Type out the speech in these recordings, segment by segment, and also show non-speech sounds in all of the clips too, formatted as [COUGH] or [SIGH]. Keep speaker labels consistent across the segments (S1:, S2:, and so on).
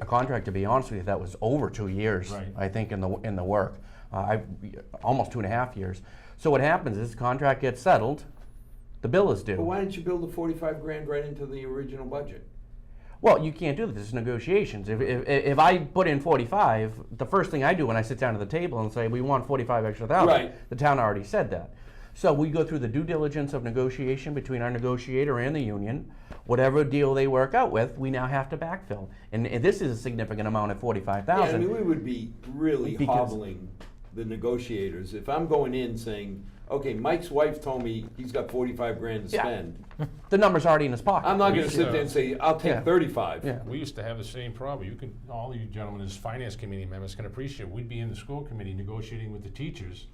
S1: A contract, to be honest with you, that was over two years,
S2: Right.
S1: I think, in the, in the work. Uh, I, almost two and a half years. So what happens is, contract gets settled, the bill is
S3: But
S1: due.
S3: why didn't you build the forty-five grand right into the original budget?
S1: Well, you can't do this, it's negotiations. If, if, if I put in forty-five, the first thing I do when I sit down at the table and say, we want forty-five extra thousand,
S3: Right.
S1: the town already said that. So we go through the due diligence of negotiation between our negotiator and the union. Whatever deal they work out with, we now have to backfill. And, and this is a significant amount at forty-five
S3: Yeah, I
S1: thousand.
S3: mean, we would be really
S1: Because-
S3: hobbling the negotiators. If I'm going in saying, okay, Mike's wife told me he's got forty-five grand to
S1: Yeah.
S3: spend.
S1: The number's already in his pocket.
S3: I'm not
S2: We
S3: gonna sit there and say, I'll
S1: Yeah.
S3: take thirty-five.
S1: Yeah.
S2: We used to have the same problem. You can, all you gentlemen as finance committee members can appreciate, we'd be in the school committee negotiating with the teachers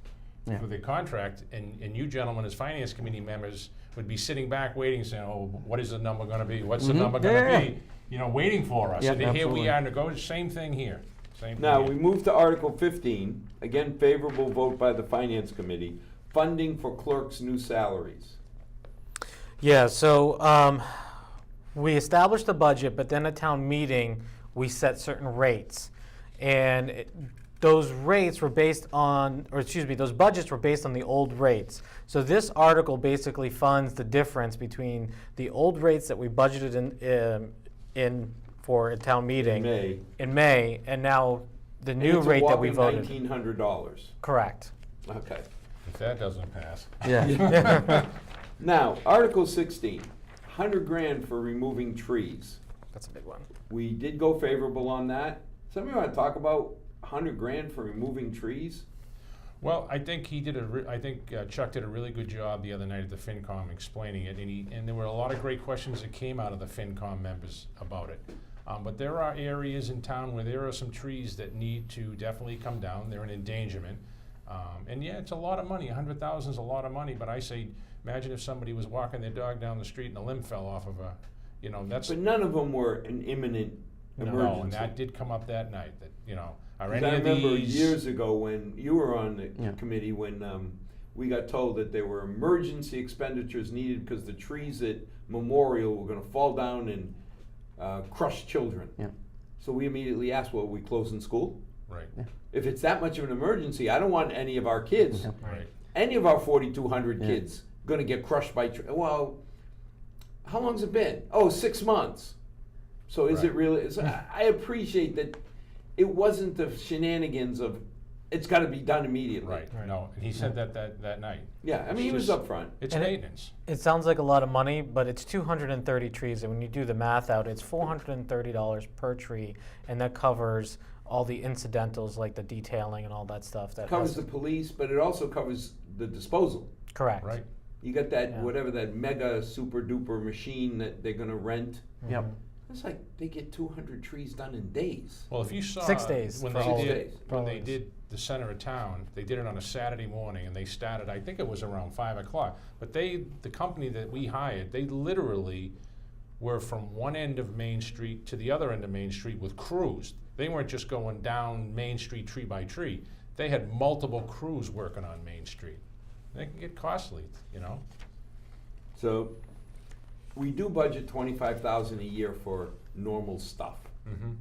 S1: Yeah.
S2: for their contract, and, and you gentlemen as finance committee members would be sitting back waiting, saying, oh, what is the number gonna be? What's the number
S1: Mm-hmm. Yeah,
S2: gonna
S1: yeah, yeah.
S2: be? You know, waiting for us.
S1: Yeah,
S2: And here
S1: absolutely.
S2: we are negotiating, same thing here, same
S3: Now,
S2: thing
S3: we
S2: here.
S3: move to Article fifteen, again favorable vote by the Finance Committee, funding for clerks' new salaries.
S4: Yeah, so um, we established the budget, but then at town meeting, we set certain rates. And it- those rates were based on, or excuse me, those budgets were based on the old rates. So this article basically funds the difference between the old rates that we budgeted in, um, in for a town meeting.
S3: May.
S4: In May, and now the new rate that we voted.
S3: Nineteen hundred dollars.
S4: Correct.
S3: Okay.
S2: If that doesn't pass.
S1: Yeah.
S3: Now, Article 16, 100 grand for removing trees.
S4: That's a big one.
S3: We did go favorable on that. Somebody want to talk about 100 grand for removing trees?
S2: Well, I think he did a, re- I think uh, Chuck did a really good job the other night at the FinCom explaining it, and he, and there were a lot of great questions that came out of the FinCom members about it. Um, but there are areas in town where there are some trees that need to definitely come down, they're an endangerment. Um, and yeah, it's a lot of money, a hundred thousand is a lot of money, but I say, imagine if somebody was walking their dog down the street and a limb fell off of a, you know, that's,
S3: But none of them were an imminent
S2: no, and
S3: emergency.
S2: that did come up that night, that, you know, are
S3: 'Cause
S2: any
S3: I
S2: of
S3: remember
S2: these-
S3: years ago when you were on the
S1: Yeah.
S3: committee when um, we got told that there were emergency expenditures needed because the trees at Memorial were going to fall down and uh, crush children.
S1: Yeah.
S3: So we immediately asked, well, are we closing school?
S2: Right,
S3: If it's that much of an emergency, I don't want any of our kids,
S2: right.
S3: any of our 4,200
S1: Yeah.
S3: kids, going to get crushed by. Tr- well, how long's it been? Oh, six months. So is it
S2: Right.
S3: really? Is, I I appreciate that it wasn't the shenanigans of it's got to be done immediately.
S2: Right, no, and he said that that, that night.
S3: Yeah, I mean, he was
S2: Just-
S3: upfront.
S2: It's
S4: And it-
S2: maintenance.
S4: It sounds like a lot of money, but it's 230 trees, and when you do the math out, it's $430 per tree, and that covers all the incidentals like the detailing and all that stuff. That
S3: Covers the
S4: has-
S3: police, but it also covers the disposal.
S4: correct.
S2: Right.
S3: You got that,
S4: Yeah.
S3: whatever that mega super duper machine that they're going to rent.
S1: Yep.
S3: It's like they get 200 trees done in days.
S2: Well, if you saw
S4: Six days
S2: when
S4: for
S2: they
S3: all
S2: did
S3: days.
S2: when they
S4: Always.
S2: did the center of town, they did it on a Saturday morning, and they started. I think it was around five o'clock. But they, the company that we hired, they literally were from one end of Main Street to the other end of Main Street with crews. They weren't just going down Main Street tree by tree. They had multiple crews working on Main Street. They can get costly, you know.
S3: So, we do budget twenty-five thousand a year for normal stuff.
S2: Mm-hmm.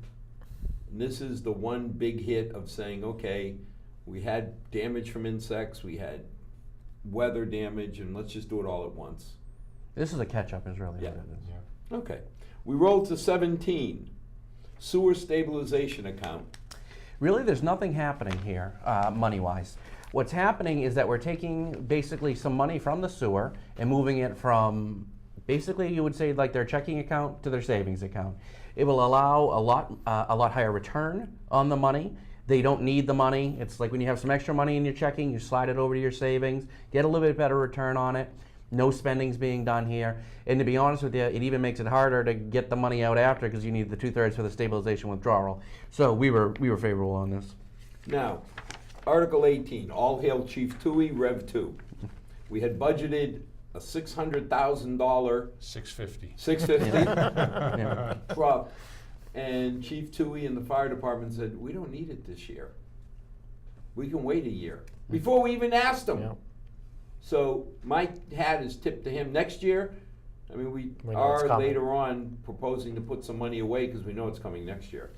S3: And this is the one big hit of saying, okay, we had damage from insects, we had weather damage, and let's just do it all at once.
S1: This is a catch-up is really
S3: Yeah.
S1: what it is.
S2: Yeah.
S3: Okay, we roll to seventeen, sewer stabilization account.
S1: Really, there's nothing happening here, uh, money-wise. What's happening is that we're taking basically some money from the sewer and moving it from, basically, you would say like their checking account to their savings account. It will allow a lot, uh, a lot higher return on the money. They don't need the money. It's like when you have some extra money in your checking, you slide it over to your savings, get a little bit better return on it. No spending's being done here. And to be honest with you, it even makes it harder to get the money out after because you need the two thirds for the stabilization withdrawal. So we were we were favorable on this.
S3: Now, Article eighteen, all hail Chief Tui, Rev two. We had budgeted a six hundred thousand dollar,
S2: Six fifty.
S3: six fifty,
S1: Yeah.
S3: [LAUGHS] truck, and Chief Tui and the fire department said, we don't need it this year. We can wait a year,
S4: Hmm.
S3: before we even asked them.
S4: Yeah.
S3: So my hat is tipped to him, next year, uh, I mean, we
S4: We know it's
S3: are
S4: coming.
S3: later on proposing to put some money away because we know it's coming next year.